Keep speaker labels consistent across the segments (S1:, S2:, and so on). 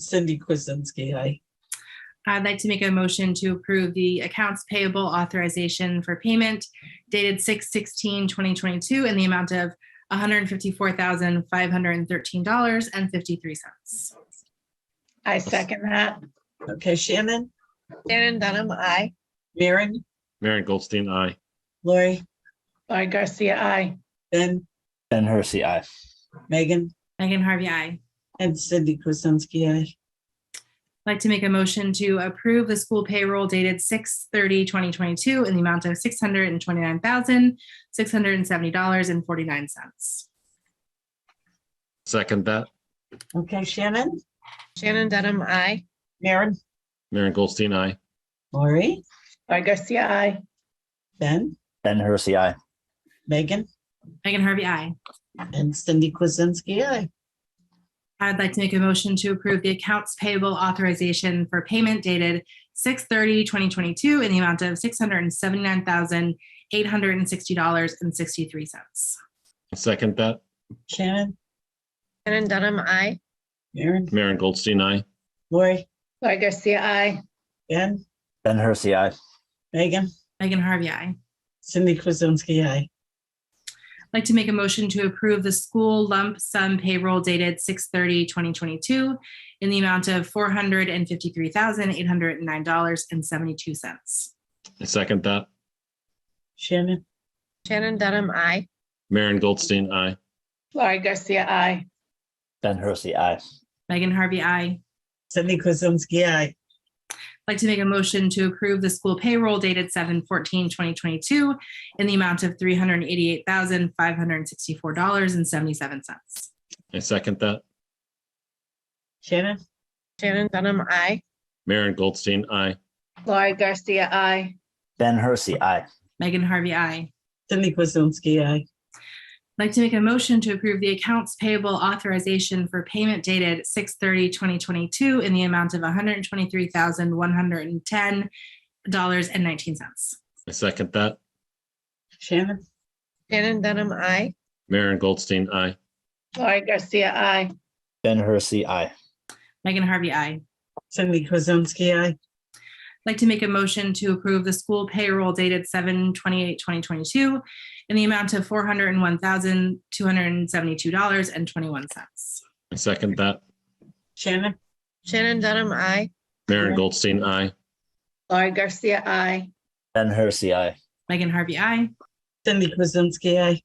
S1: Cindy Kuzensky, aye.
S2: I'd like to make a motion to approve the accounts payable authorization for payment dated 2022 in the amount of one hundred fifty-four thousand, five hundred and thirteen dollars and fifty-three cents.
S3: I second that.
S1: Okay, Shannon,
S3: Shannon Dunham, I.
S1: Maren,
S4: Maren Goldstein, aye.
S1: Lori,
S3: Laurie Garcia, I.
S1: Ben,
S5: Ben Hersey, aye.
S1: Megan,
S2: Megan Harvey, aye.
S1: and Cindy Kuzensky, aye.
S2: I'd like to make a motion to approve the school payroll dated 2022 in the amount of six hundred and twenty-nine thousand, six hundred and seventy dollars and forty-nine cents.
S4: Second that,
S1: Okay, Shannon,
S3: Shannon Dunham, I.
S1: Maren,
S4: Maren Goldstein, aye.
S1: Lori,
S3: Laurie Garcia, I.
S1: Ben,
S5: Ben Hersey, aye.
S1: Megan,
S2: Megan Harvey, aye.
S1: and Cindy Kuzensky, aye.
S2: I'd like to make a motion to approve the accounts payable authorization for payment dated 2022 in the amount of six hundred and seventy-nine thousand, eight hundred and sixty dollars and sixty-three cents.
S4: Second that,
S1: Shannon,
S3: Shannon Dunham, I.
S1: Maren,
S4: Maren Goldstein, aye.
S1: Lori,
S3: Laurie Garcia, I.
S1: Ben,
S5: Ben Hersey, aye.
S1: Megan,
S2: Megan Harvey, I.
S1: Cindy Kuzensky, aye.
S2: I'd like to make a motion to approve the school lump sum payroll dated 2022 in the amount of four hundred and fifty-three thousand, eight hundred and nine dollars and seventy-two cents.
S4: Second that,
S1: Shannon,
S3: Shannon Dunham, I.
S4: Maren Goldstein, aye.
S3: Laurie Garcia, I.
S5: Ben Hersey, aye.
S2: Megan Harvey, I.
S1: Cindy Kuzensky, aye.
S2: I'd like to make a motion to approve the school payroll dated 2022 in the amount of three hundred and eighty-eight thousand, five hundred and sixty-four dollars and seventy-seven cents.
S4: Second that,
S1: Shannon,
S3: Shannon Dunham, I.
S4: Maren Goldstein, aye.
S3: Laurie Garcia, I.
S5: Ben Hersey, aye.
S2: Megan Harvey, I.
S1: Cindy Kuzensky, aye.
S2: I'd like to make a motion to approve the accounts payable authorization for payment dated 2022 in the amount of one hundred and twenty-three thousand, one hundred and ten dollars and nineteen cents.
S4: Second that,
S1: Shannon,
S3: Shannon Dunham, I.
S4: Maren Goldstein, aye.
S3: Laurie Garcia, I.
S5: Ben Hersey, aye.
S2: Megan Harvey, I.
S1: Cindy Kuzensky, aye.
S2: Like to make a motion to approve the school payroll dated 2022 in the amount of four hundred and one thousand, two hundred and seventy-two dollars and twenty-one cents.
S4: Second that,
S1: Shannon,
S3: Shannon Dunham, I.
S4: Maren Goldstein, aye.
S3: Laurie Garcia, I.
S5: Ben Hersey, aye.
S2: Megan Harvey, I.
S1: Cindy Kuzensky, aye.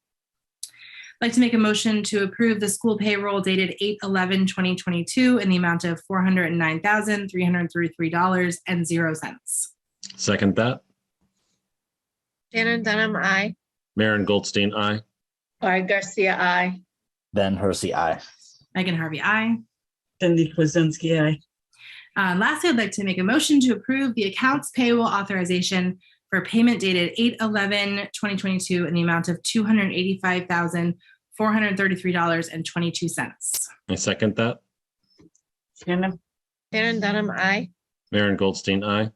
S2: Like to make a motion to approve the school payroll dated 2022 in the amount of four hundred and nine thousand, three hundred and thirty-three dollars and zero cents.
S4: Second that,
S3: Shannon Dunham, I.
S4: Maren Goldstein, aye.
S3: Laurie Garcia, I.
S5: Ben Hersey, aye.
S2: Megan Harvey, I.
S1: Cindy Kuzensky, aye.
S2: Uh, lastly, I'd like to make a motion to approve the accounts payable authorization for payment dated 2022 in the amount of two hundred eighty-five thousand, four hundred thirty-three dollars and twenty-two cents.
S4: Second that,
S1: Shannon,
S3: Shannon Dunham, I.
S4: Maren Goldstein, aye.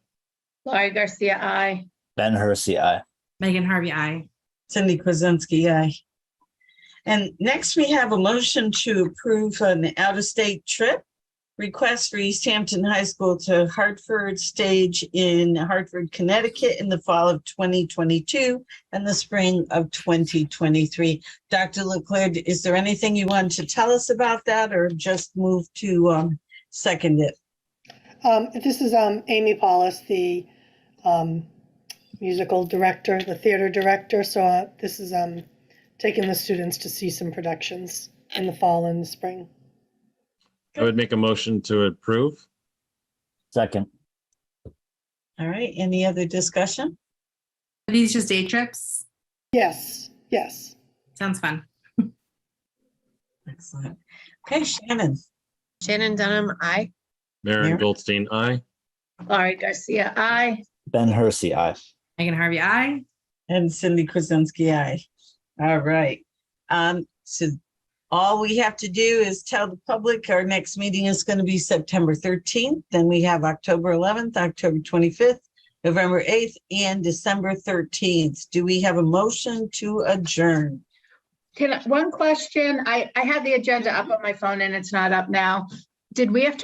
S3: Laurie Garcia, I.
S5: Ben Hersey, aye.
S2: Megan Harvey, I.
S1: Cindy Kuzensky, aye. And next, we have a motion to approve an out-of-state trip request for East Hampton High School to Hartford Stage in Hartford, Connecticut in the fall of 2022 and the spring of 2023. Dr. Leclerc, is there anything you want to tell us about that or just move to um, second it?
S6: Um, this is um, Amy Paulus, the um, musical director, the theater director. So uh, this is um, taking the students to see some productions in the fall and the spring.
S4: I would make a motion to approve.
S5: Second,
S1: All right, any other discussion?
S2: Are these just day trips?
S6: Yes, yes.
S2: Sounds fun.
S1: Excellent. Okay, Shannon,
S3: Shannon Dunham, I.
S4: Maren
S1: Maren-
S4: Goldstein, aye.
S3: Laurie Garcia, I.
S5: Ben Hersey, aye.
S2: Megan Harvey, I.
S1: And Cindy Kuzensky, aye. All right. Um, so all we have to do is tell the public our next meeting is going to be September thirteenth. Then we have October eleventh, October twenty-fifth, November eighth, and December thirteenth. Do we have a motion to adjourn?
S7: Can, I- one question, I, I had the agenda up on my phone and it's not up now. Did we have to